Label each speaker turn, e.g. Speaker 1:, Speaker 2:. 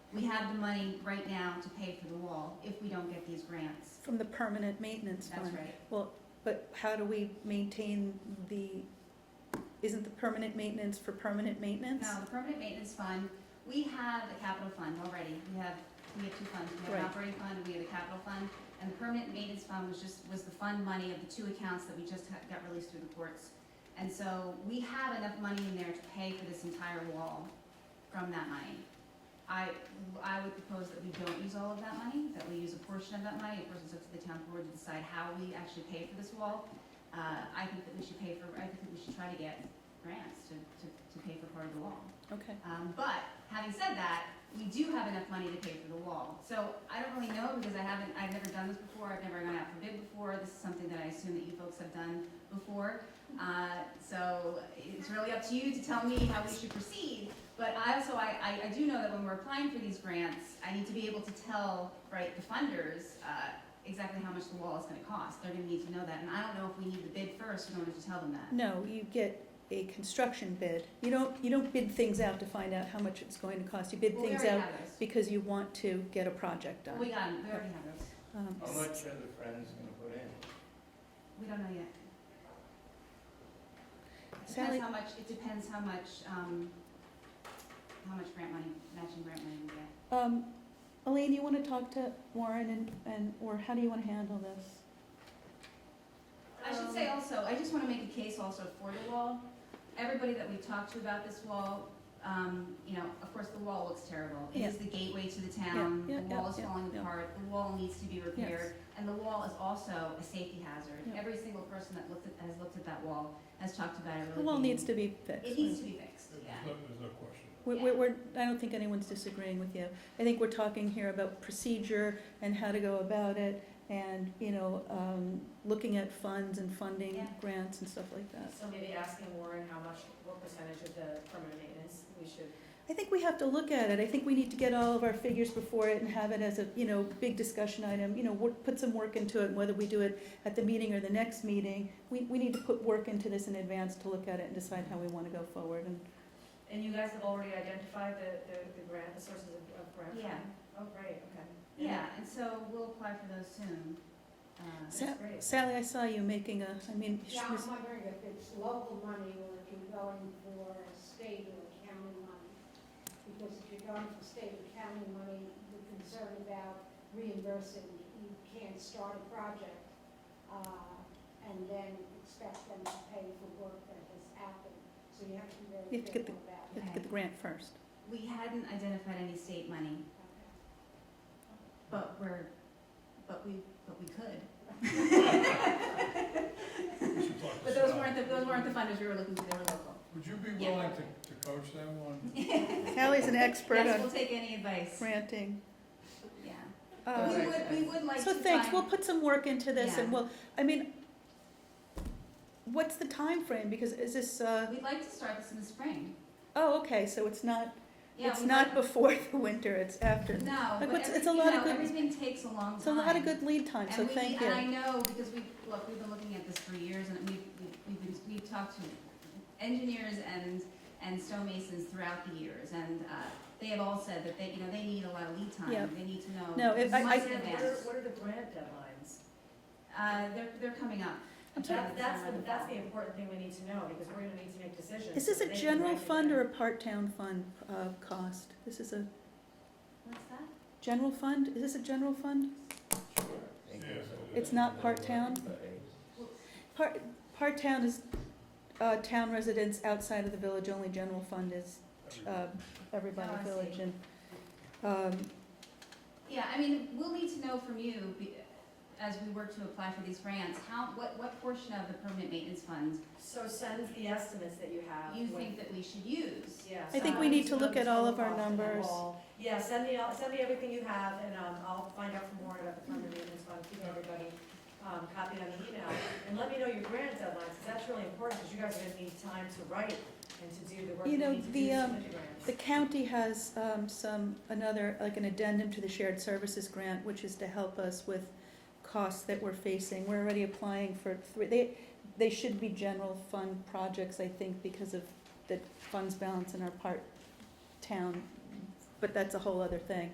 Speaker 1: we have the money right now to pay for the wall if we don't get these grants.
Speaker 2: From the permanent maintenance fund?
Speaker 1: That's right.
Speaker 2: Well, but how do we maintain the, isn't the permanent maintenance for permanent maintenance?
Speaker 1: Now, the permanent maintenance fund, we have a capital fund already. We have, we have two funds. We have an
Speaker 2: Right.
Speaker 1: operating fund and we have a capital fund. And the permanent maintenance fund was just, was the fund money of the two accounts that we just ha- got released through the courts. And so we have enough money in there to pay for this entire wall from that money. I, I would propose that we don't use all of that money, that we use a portion of that money. Of course, it's up to the town board to decide how we actually pay for this wall. Uh, I think that we should pay for, I think that we should try to get grants to, to, to pay for part of the wall.
Speaker 2: Okay,
Speaker 1: Um, but having said that, we do have enough money to pay for the wall. So I don't really know because I haven't, I've never done this before. I've never gone out for bid before. This is something that I assume that you folks have done before. Uh, so it's really up to you to tell me how we should proceed. But I also, I, I, I do know that when we're applying for these grants, I need to be able to tell, right, the funders, uh, exactly how much the wall is gonna cost. They're gonna need to know that. And I don't know if we need the bid first in order to tell them that.
Speaker 2: no, you get a construction bid. You don't, you don't bid things out to find out how much it's going to cost. You bid
Speaker 1: Well, we
Speaker 2: things
Speaker 1: already
Speaker 2: out
Speaker 1: have those.
Speaker 2: because you want to get a project
Speaker 1: We
Speaker 2: done.
Speaker 1: got 'em. We already have those.
Speaker 2: Um,
Speaker 3: How much are the Friends gonna put in?
Speaker 1: We don't know yet.
Speaker 2: Sally-
Speaker 1: Depends how much, it depends how much, um, how much grant money, matching grant money we get.
Speaker 2: Um, Elaine, you wanna talk to Warren and, and, or how do you wanna handle this?
Speaker 1: I should say
Speaker 2: Um,
Speaker 1: also, I just wanna make a case also for the wall. Everybody that we've talked to about this wall, um, you know, of course, the wall looks terrible. It is the gateway to the town,
Speaker 2: Yeah,
Speaker 1: the
Speaker 2: yeah,
Speaker 1: wall is
Speaker 2: yeah,
Speaker 1: falling
Speaker 2: yeah.
Speaker 1: apart, the wall needs to be
Speaker 2: Yes.
Speaker 1: repaired. And the wall is also a safety hazard.
Speaker 2: Yeah.
Speaker 1: Every single person that looked at, has looked at that wall has talked about it really
Speaker 2: The wall
Speaker 1: being-
Speaker 2: needs to be fixed.
Speaker 1: It needs to be fixed, yeah.
Speaker 3: there's no question.
Speaker 2: We're, we're, we're- I don't think anyone's disagreeing with you. I think we're talking here about procedure and how to go about it and, you know, um, looking at funds and funding
Speaker 1: Yeah.
Speaker 2: grants and stuff like that.
Speaker 4: So maybe asking Warren how much, what percentage of the permanent maintenance we should,
Speaker 2: I think we have to look at it. I think we need to get all of our figures before it and have it as a, you know, big discussion item, you know, wor- put some work into it, and whether we do it at the meeting or the next meeting. We, we need to put work into this in advance to look at it and decide how we wanna go forward and,
Speaker 4: and you guys have already identified the, the, the grant, the sources of, of grant funding?
Speaker 1: Yeah.
Speaker 4: Oh, great, okay.
Speaker 1: Yeah, and so we'll apply for those soon. Uh,
Speaker 2: So-
Speaker 4: That's great.
Speaker 2: Sally, I saw you making a, I mean, she
Speaker 5: Yeah,
Speaker 2: was,
Speaker 5: I'm wondering if it's local money or if you're going for state or county money. Because if you're going for state or county money, you're concerned about reimbursing, you can't start a project, uh, and then expect them to pay for work that has happened. So you have to be
Speaker 2: You
Speaker 5: very
Speaker 2: have to get the-
Speaker 5: careful about
Speaker 2: let's get the grant first.
Speaker 1: We hadn't identified any state money,
Speaker 5: it.
Speaker 1: but we're, but we, but we could. But those weren't the, those weren't the funders we were looking for, they were local.
Speaker 3: Would you be
Speaker 1: Yeah.
Speaker 3: willing to, to coach them on?
Speaker 2: Sally's an expert
Speaker 1: Yes,
Speaker 2: on
Speaker 1: we'll take any advice,
Speaker 2: granting.
Speaker 1: yeah.
Speaker 2: Uh,
Speaker 1: Oh, We would, we would like to
Speaker 2: So thanks, we'll
Speaker 1: find-
Speaker 2: put some work into this and
Speaker 1: Yeah.
Speaker 2: we'll, I mean, what's the time frame? Because is this, uh,
Speaker 1: We'd like to start this in the spring.
Speaker 2: oh, okay, so it's not,
Speaker 1: Yeah,
Speaker 2: it's
Speaker 1: we'd
Speaker 2: not
Speaker 1: like-
Speaker 2: before the winter, it's after.
Speaker 1: No, but
Speaker 2: what's- it's a
Speaker 1: everything, you
Speaker 2: lot of
Speaker 1: know,
Speaker 2: good-
Speaker 1: everything takes a long time.
Speaker 2: It's a lot of good lead time, so
Speaker 1: And we,
Speaker 2: thank
Speaker 1: and I
Speaker 2: you.
Speaker 1: know, because we, look, we've been looking at this for years, and we've, we've- we've been, we've talked to engineers and, and stonemasons throughout the years, and, uh, they have all said that they, you know, they need a lot of lead
Speaker 2: Yeah.
Speaker 1: time, they need to know.
Speaker 2: No, if I-
Speaker 1: months in
Speaker 4: And what are,
Speaker 1: advance.
Speaker 4: what are the grant deadlines?
Speaker 1: Uh, they're, they're coming up.
Speaker 2: I'm sorry.
Speaker 4: That- That's, the- that's the important thing we need to know, because we're gonna need to make decisions.
Speaker 2: Is this
Speaker 4: so
Speaker 2: a
Speaker 4: they can
Speaker 2: general
Speaker 4: write it
Speaker 2: fund
Speaker 4: down.
Speaker 2: or a part-town fund, uh, cost? This is a
Speaker 1: What's that?
Speaker 2: general fund? Is this a general fund? It's
Speaker 3: It's
Speaker 2: not part-town? Part, part-town is, uh, town residents outside of the village, only general fund is, uh, everybody
Speaker 1: Oh, I see.
Speaker 2: village and, um,
Speaker 1: Yeah, I mean, we'll need to know from you, be- as we work to apply for these grants, how, what, what portion of the permanent maintenance fund
Speaker 4: So send the estimates that you have.
Speaker 1: you
Speaker 4: with-
Speaker 1: think that we should use?
Speaker 4: Yeah.
Speaker 2: I think we
Speaker 4: size,
Speaker 2: need to
Speaker 4: you know,
Speaker 2: look
Speaker 4: the
Speaker 2: at all of
Speaker 4: total
Speaker 2: our
Speaker 4: cost the
Speaker 2: numbers.
Speaker 4: wall. Yeah, send me, all- send me everything you have, and um, I'll find out from Warren about the permanent maintenance fund, keep everybody um, copied on the email. And let me know your grant deadlines, because that's really important, because you guys are gonna need time to write and to do the work
Speaker 2: You
Speaker 4: you
Speaker 2: know,
Speaker 4: need to
Speaker 2: the,
Speaker 4: do to
Speaker 2: um,
Speaker 4: submit the grants.
Speaker 2: The county has um, some, another, like an addendum to the shared services grant, which is to help us with costs that we're facing. We're already applying for three, they, they should be general fund projects, I think, because of the funds balance in our part town but that's a whole other thing.